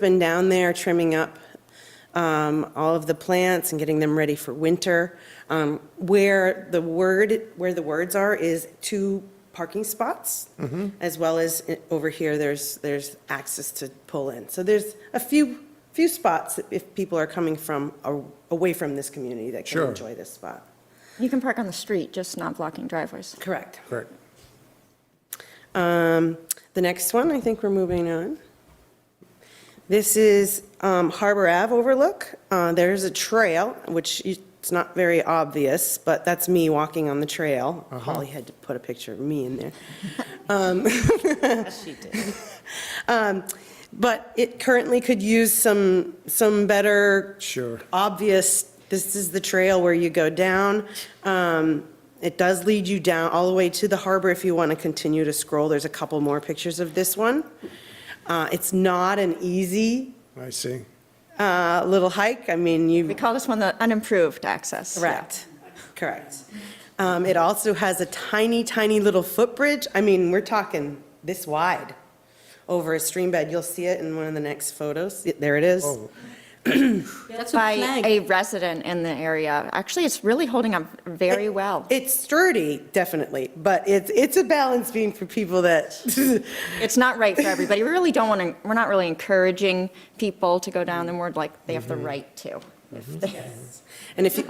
been down there trimming up um, all of the plants and getting them ready for winter. Um, Where the word, where the words are is two parking spots, as well as i- over here, there's, there's access to pull in. So there's a few, few spots if people are coming from, a- away from this community that can Sure. enjoy this spot. You can park on the street, just not blocking driveways. Correct. Correct. Um, The next one, I think we're moving on. This is um, Harbor Ave overlook. Uh, There's a trail, which you- it's not very obvious, but that's me walking on the trail. Holly had to put a picture of me in there. Um, But it currently could use some, some better. Sure. Obvious, this is the trail where you go down. Um, It does lead you down all the way to the harbor if you want to continue to scroll. There's a couple more pictures of this one. Uh, It's not an easy I see. uh, little hike. I mean, you. We call this one the unimproved access. Correct, correct. Um, It also has a tiny, tiny little footbridge. I mean, we're talking this wide over a stream bed. You'll see it in one of the next photos. There it is. Oh, That's a By plank. a resident in the area. Actually, it's really holding up very well. It's sturdy, definitely, but it's, it's a balance beam for people that, It's not right for everybody. We really don't want to, we're not really encouraging people to go down the road like they have Mm-hmm. the right to. and if you.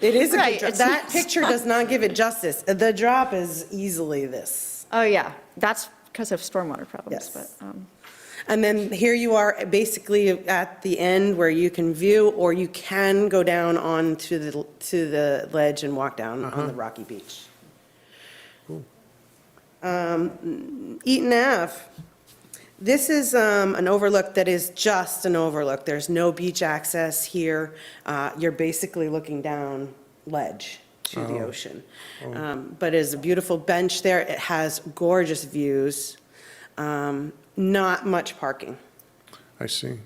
It is a Right, good drop. it's That not- picture does not give it justice. The drop is easily this. Oh, yeah, that's because of stormwater problems, but, Yes. um, And then here you are basically at the end where you can view, or you can go down onto the, to the ledge and walk down on the rocky beach. Um, Eaton Ave, this is um, an overlook that is just an overlook. There's no beach access here. Uh, You're basically looking down ledge to the ocean. Um, But it's a beautiful bench there. It has gorgeous views. Um, Not much parking. I see.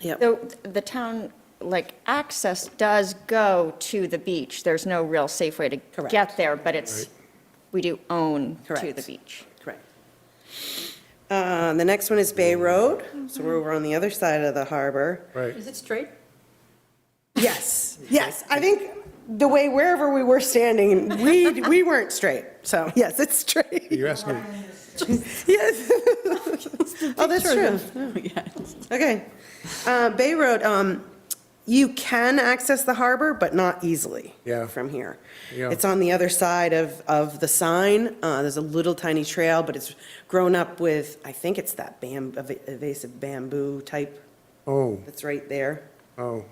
Yep. though the town, like, access does go to the beach. There's no real safe way to Correct. get there, but it's, we do own to Correct. the beach. Correct. Uh, The next one is Bay Road, so we're over on the other side of the harbor. Right. Is it straight? Yes, yes, I think the way wherever we were standing, we, we weren't straight, so yes, it's straight. You asked me. Yes. Oh, that's true. Okay. Uh, Bay Road, um, you can access the harbor, but not easily. Yeah. From here. Yeah. It's on the other side of, of the sign. Uh, there's a little tiny trail, but it's grown up with, I think it's that bam, ev- invasive bamboo type Oh, that's right there. oh,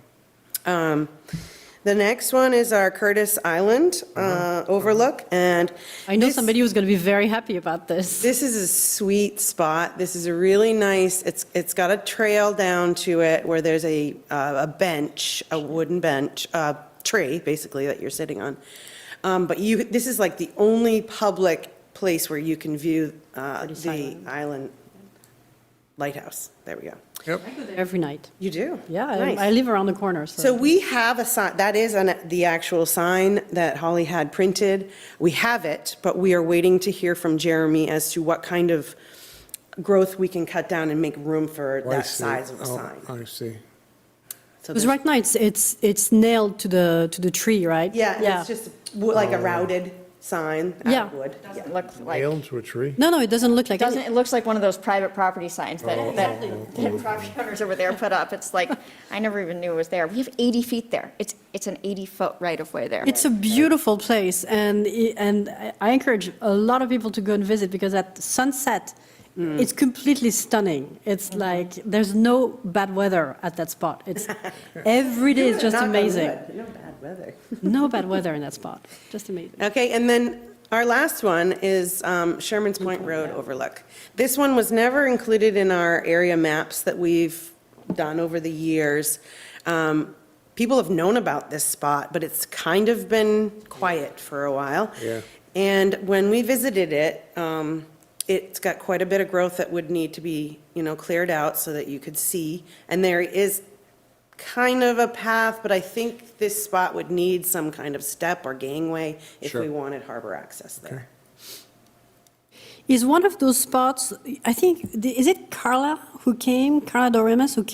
Um, The next one is our Curtis Island Uh-huh. uh, overlook, and. I know this- somebody who's going to be very happy about this. This is a sweet spot. This is a really nice, it's, it's got a trail down to it where there's a, uh, a bench, a wooden bench, a tree, basically, that you're sitting on. Um, But you, this is like the only public place where you can view uh, the island lighthouse. There we go. yep. I go there Every night. You do? Yeah, Nice. I- I live around the corner, So so. we have a sign, that is an- the actual sign that Holly had printed. We have it, but we are waiting to hear from Jeremy as to what kind of growth we can cut down and make room for Oh, I that see. size of a Oh, sign. I see. So Because there's- right now, it's, it's, it's nailed to the, to the tree, right? Yeah, and it's just wo- like a Oh. routed sign out of Yeah. wood. Yeah. Doesn't look like. Nailed to a tree? No, no, it doesn't look like, Doesn't, any- it looks like one of those private property signs that, that, that property owners over there put up. It's like, I never even knew it was there. We have 80 feet there. It's, it's an 80-foot right-of-way there. it's a beautiful place, and, i- and I- I encourage a lot of people to go and visit, because at sunset, it's completely stunning. It's like, there's no bad weather at that spot. It's, every day is just Knock on amazing. wood. You know, bad weather. No bad weather in that spot, just amazing. Okay, and then our last one is um, Sherman's Point Road overlook. This one was never included in our area maps that we've done over the years. Um, People have known about this spot, but it's kind of been quiet for a while. Yeah. And when we visited it, um, it's got quite a bit of growth that would need to be, you know, cleared out so that you could see. And there is kind of a path, but I think this spot would need some kind of step or gangway if we Sure. wanted harbor access there. is one of those spots, I think, the- is it Carla who came, Carla Doremus, who